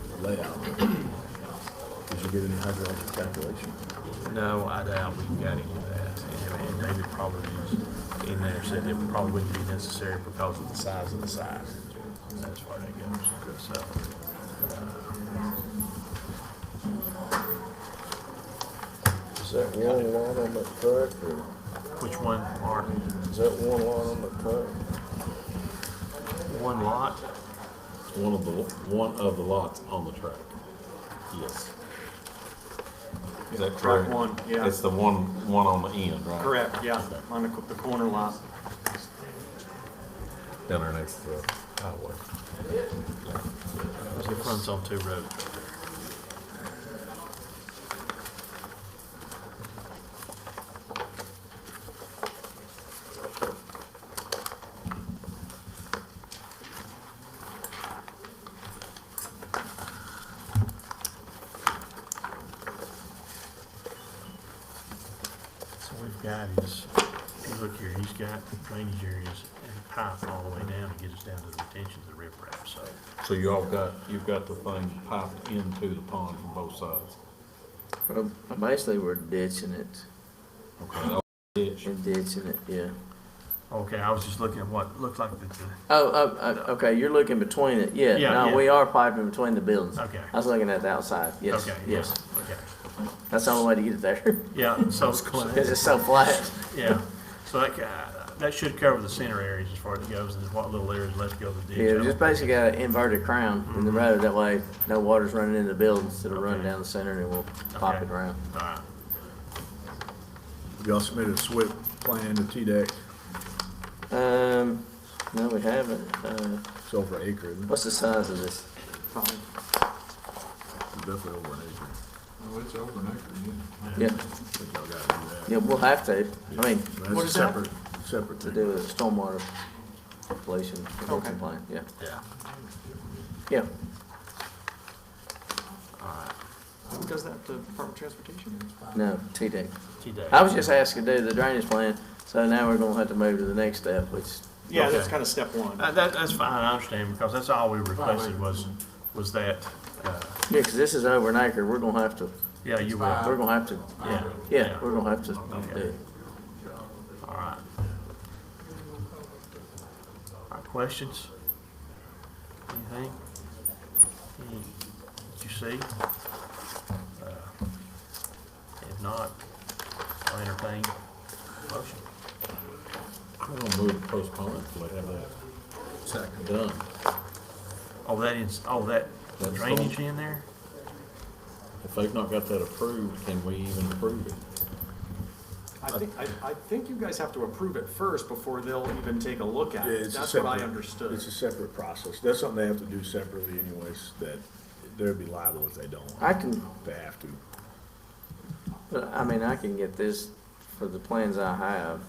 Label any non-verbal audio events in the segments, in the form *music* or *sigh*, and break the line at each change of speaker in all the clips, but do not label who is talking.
*clears throat*
layout. Did you get any hydrologic calculations?
No, I doubt we've got any of that. And and David probably was in there said it probably wouldn't be necessary because of the size of the site. That's where that goes. So,
Is that one lot on that track, or
which one, Mark?
is that one lot on that track?
One lot?
One of the, one of the lots on the track. Yes. Is that
Track
correct?
one, yeah,
It's the one, one on the end, right?
correct, yeah, on the, co- the corner lot.
Down there next to the highway.
It runs on two roads. So we've got is, if you look here, he's got drainage areas and pipe all the way down to get us down to the retention of the riprap, so.
So you all got, you've got the thing piped into the pond from both sides.
Well, basically, we're ditching it,
Okay. Ditch.
we're ditching it, yeah.
Okay, I was just looking at what looked like the, the-
Oh, oh, oh, okay, you're looking between it, yeah,
Yeah, yeah.
no, we are piping between the buildings.
Okay.
I was looking at the outside, yes,
okay, yeah,
yes,
okay.
that's the only way to get it there, *laughs*
Yeah, so,
because it's so flat.
*laughs* yeah, so that, ca- that should cover the center areas as far as it goes, and what little areas left go to the ditch. I
Yeah, we
don't
just
think-
basically got an inverted crown in the road, that way no water's running into the buildings, it'll run
Mm-hmm. Okay.
down the center and we'll pop
Okay.
it around.
All right,
Y'all submitted a SWIP plan to E TDEC,
Um, no, we haven't, uh,
it's over an acre, isn't it?
what's the size of this?
Probably.
It's definitely over an acre.
Oh, it's over an acre, yeah.
Yeah,
I think y'all gotta do that.
yeah, we'll have to, I mean,
That's a separate, separate
to
thing.
do with stormwater pollution, prevention
Okay.
plan, yeah,
yeah,
yeah.
Who does that, the Department of Transportation?
No, T-Dec.
T-Dec.
I was just asking to do the drainage plan, so now we're gonna have to move to the next step, which,
Yeah, that's
Okay.
kind of step one.
Uh, That, that's fine, I understand, because that's all we requested was, was that, uh,
yeah, 'cause this is over an acre, we're gonna have to,
yeah, you will,
we're
yeah,
gonna have to, yeah, we're gonna have to do it.
all right. All right, questions? Anything? Any, did you see? Uh, If not, I'll entertain a motion.
I'm gonna move to postpone it till they have that. Second. Done.
Oh, that is, oh, that
That's
drainage in there?
If they've not got that approved, can we even approve it?
I think, I, I think you guys have to approve it first before they'll even take a look at
Yeah,
it.
it's a
That's what I
separate-
understood.
It's a separate process. That's something they have to do separately anyways, that they'd be liable if they don't.
I can,
They have to.
but, I mean, I can get this, for the plans I have,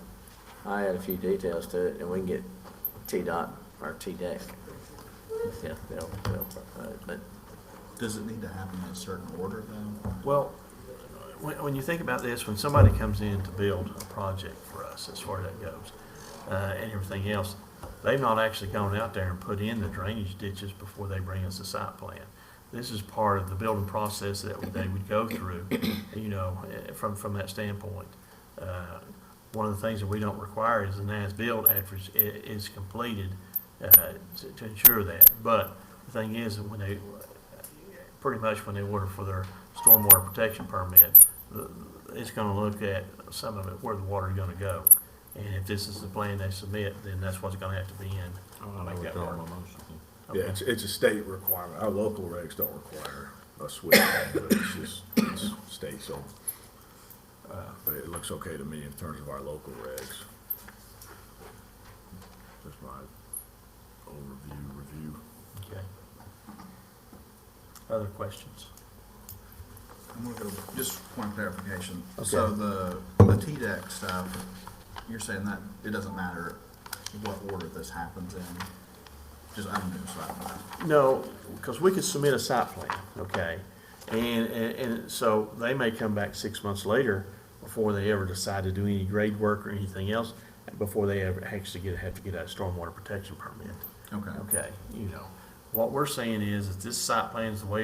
I add a few details to it, and we can get T-Dot or T-Dec. Yeah, they'll, they'll, uh, but,
Does it need to happen in a certain order though?
Well, when, when you think about this, when somebody comes in to build a project for us, as far as that goes, uh, and everything else, they've not actually gone out there and put in the drainage ditches before they bring us the site plan. This is part of the building process that they would go through, you know, eh, from, from that standpoint. Uh, One of the things that we don't require is an as-built after it's, i- is completed, uh, to to ensure that. But the thing is, when they, pretty much when they order for their stormwater protection permit, the- it's gonna look at some of it, where the water's gonna go. And if this is the plan they submit, then that's what's gonna have to be in.
Oh, I
Make Oh, that
withdraw
work.
my motion.
Yeah, it's, it's a state requirement. Our local regs don't require a switch, but it's just, it's state, so. uh, But it looks okay to me in terms of our local regs. That's my overview, review.
Okay. Other questions?
I'm gonna go, just one clarification. So the, the TDEC stuff, you're saying that it doesn't matter what order this happens in? Just, I'm new, so I don't know.
No, because we could submit a site plan, okay? And, and, and so they may come back six months later before they ever decide to do any grade work or anything else, before they ever actually get, have to get a stormwater protection permit.
Okay.
Okay, you know, what we're saying is that this site plan is the way